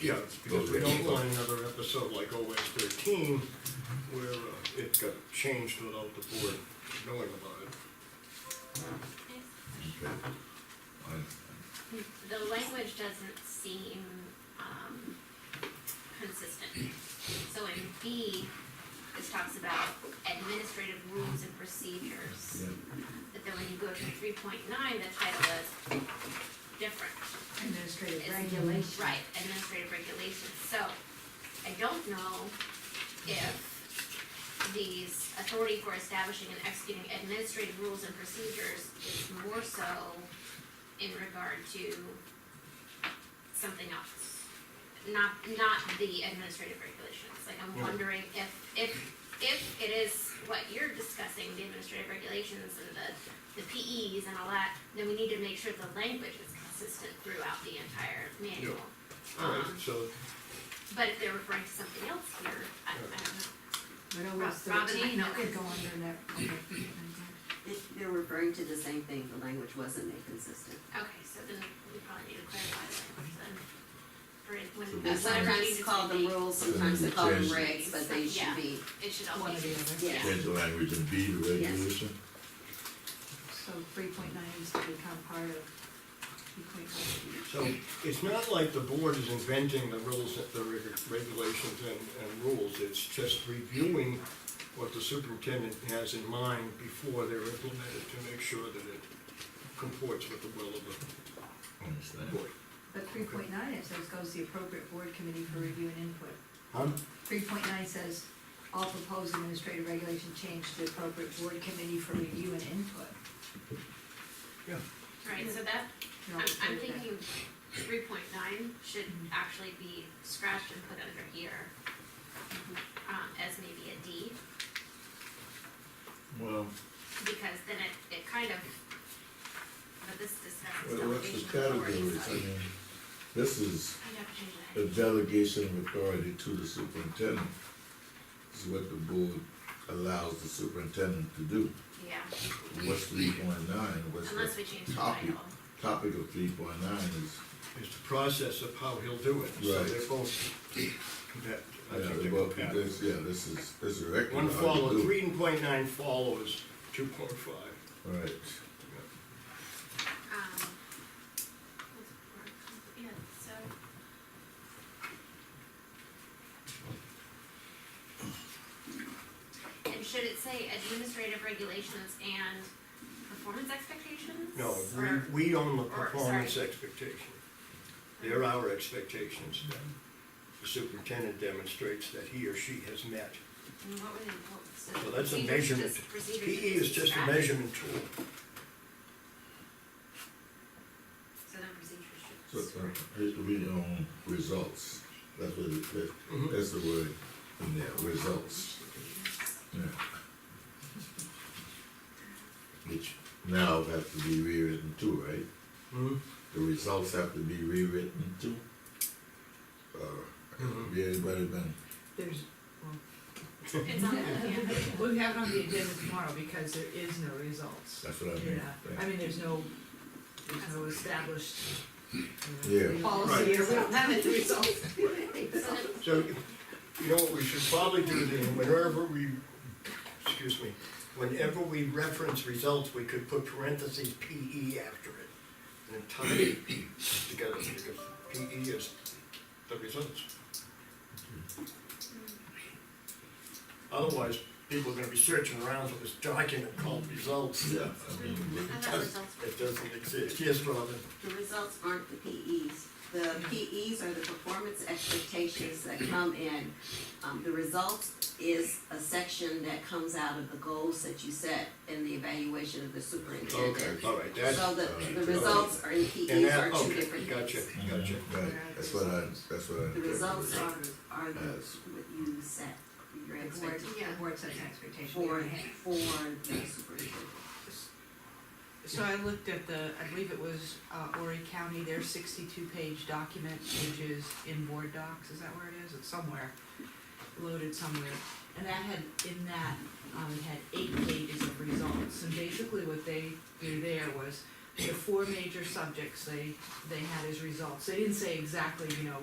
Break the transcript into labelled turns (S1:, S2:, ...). S1: Yeah, because we
S2: Those
S1: don't
S2: guys.
S1: want another episode like OS thirteen, where uh, it got changed without the board knowing about it.
S2: Okay. I-
S3: The language doesn't seem, um, consistent. So in B, this talks about administrative rules and procedures.
S2: yeah.
S3: But then when you go to three point nine, the title is different.
S4: Administrative
S3: It's-
S4: regulations.
S3: Right, administrative regulations. So I don't know if these authority for establishing and executing administrative rules and procedures is more so in regard to something else. Not, not the administrative regulations. Like I'm
S1: Yeah.
S3: wondering if, if, if it is what you're discussing, the administrative regulations and the the PEs and all that, then we need to make sure the language is consistent throughout the entire manual.
S1: All right,
S3: Um,
S1: so,
S3: But if they're referring to something else here, I I don't know.
S4: But OS
S3: Rob- Robin might
S4: thirteen,
S3: know.
S4: that could go under that. okay.
S5: They- They're referring to the same thing, the language wasn't made consistent.
S3: Okay, so then we probably need to clarify the language then. For it- when-
S2: So
S3: when
S2: we'll-
S3: whatever
S5: Sometimes
S3: changes
S5: call
S3: we
S5: them
S3: make,
S5: rules, sometimes they call them
S2: Yes.
S5: regs, but they should be,
S3: It should all
S4: One
S3: be.
S4: or the other.
S5: Yeah.
S2: Change the language and B, the
S5: Yes.
S2: regulation.
S4: So three point nine is to become part of three point four.
S1: so it's not like the board is inventing the rules, the reg- regulations and, and rules. It's just reviewing what the superintendent has in mind before they're implemented to make sure that it comports with the will of the
S2: Understand?
S1: board.
S4: But three point nine, it says goes to the appropriate board committee for review and input.
S1: Huh?
S4: Three point nine says all proposed administrative regulation change to the appropriate board committee for review and input.
S1: Yeah.
S3: Right, so that,
S4: You're
S3: I'm,
S4: all
S3: I'm
S4: clear with
S3: thinking three point nine should actually be scratched and put under here. Um, as maybe a D.
S2: Well,
S3: because then it, it kind of, but this discusses
S2: what- what's the
S3: delegation of authority,
S2: categories? I
S3: so
S2: mean, this is
S3: I'd have to change
S2: a
S3: that.
S2: delegation of authority to the superintendent. This is what the board allows the superintendent to do.
S3: Yeah,
S2: What's three point nine, what's
S3: unless
S2: the
S3: we change the
S2: topic?
S3: title.
S2: Topic of three point nine is,
S1: It's the process of how he'll do it, so
S2: Right.
S1: they're both compat- I
S2: yeah,
S1: think
S2: the
S1: they're
S2: book,
S1: compatible.
S2: this, yeah, this is, this is a record.
S1: One
S2: how you
S1: follow,
S2: do it.
S1: three point nine follows two point five.
S2: Right,
S3: Um, yeah, so. And should it say administrative regulations and performance expectations?
S1: No,
S3: Or-
S1: we, we own the
S3: or,
S1: performance
S3: sorry.
S1: expectation. They're our expectations that the superintendent demonstrates that he or she has met.
S3: And what were they, what, so.
S1: So that's a
S3: procedures
S1: measurement.
S3: just- procedures
S1: PE is just a
S3: scratched.
S1: measurement tool.
S3: So then procedures
S2: so,
S3: should.
S2: uh, it- we own results, that's what it, that-
S1: Mhm.
S2: that's the word in there, results, yeah. Which now have to be rewritten too, right?
S1: Hmm?
S2: The results have to be rewritten too? Uh, Or,
S1: Mhm.
S2: have anybody been,
S6: There's, well,
S3: It's on, yeah.
S6: we'll have it on the agenda tomorrow because there is no results.
S2: that's what I
S6: Yeah,
S2: mean.
S6: I mean, there's no, there's no established. you know,
S2: Yeah.
S6: Policy, or we don't have any results.
S3: So then
S1: So, you know, what we should probably do then, whenever we, excuse me, whenever we reference results, we could put parentheses PE after it. And tie it together, because PE is the results. Otherwise, people are gonna be searching around for this document called results.
S2: Yeah, I mean,
S3: I thought results were-
S1: It doesn't exist. Yes, Robin?
S5: the results aren't the PEs. The PEs are the performance expectations that come in. Um, the results is a section that comes out of the goals that you set in the evaluation of the superintendent.
S1: All right, that's,
S5: So the, the
S2: okay.
S5: results are, in
S1: and
S5: PEs are
S1: that,
S5: two
S1: okay,
S5: different
S1: gotcha,
S5: things.
S1: gotcha.
S2: Right, that's what I, that's what I.
S5: The results are,
S2: interpreted.
S5: are the,
S2: Yes.
S5: what you set, your
S4: that. The board,
S5: expectations
S4: the board sets expectations.
S5: for, for the superintendent.
S6: So I looked at the, I believe it was uh, Horry County, their sixty-two page document, which is in board docs, is that where it is? It's somewhere, loaded somewhere. And that had, in that, um, it had eight pages of results, and basically what they do there was the four major subjects they, they had as results. They didn't say exactly, you know,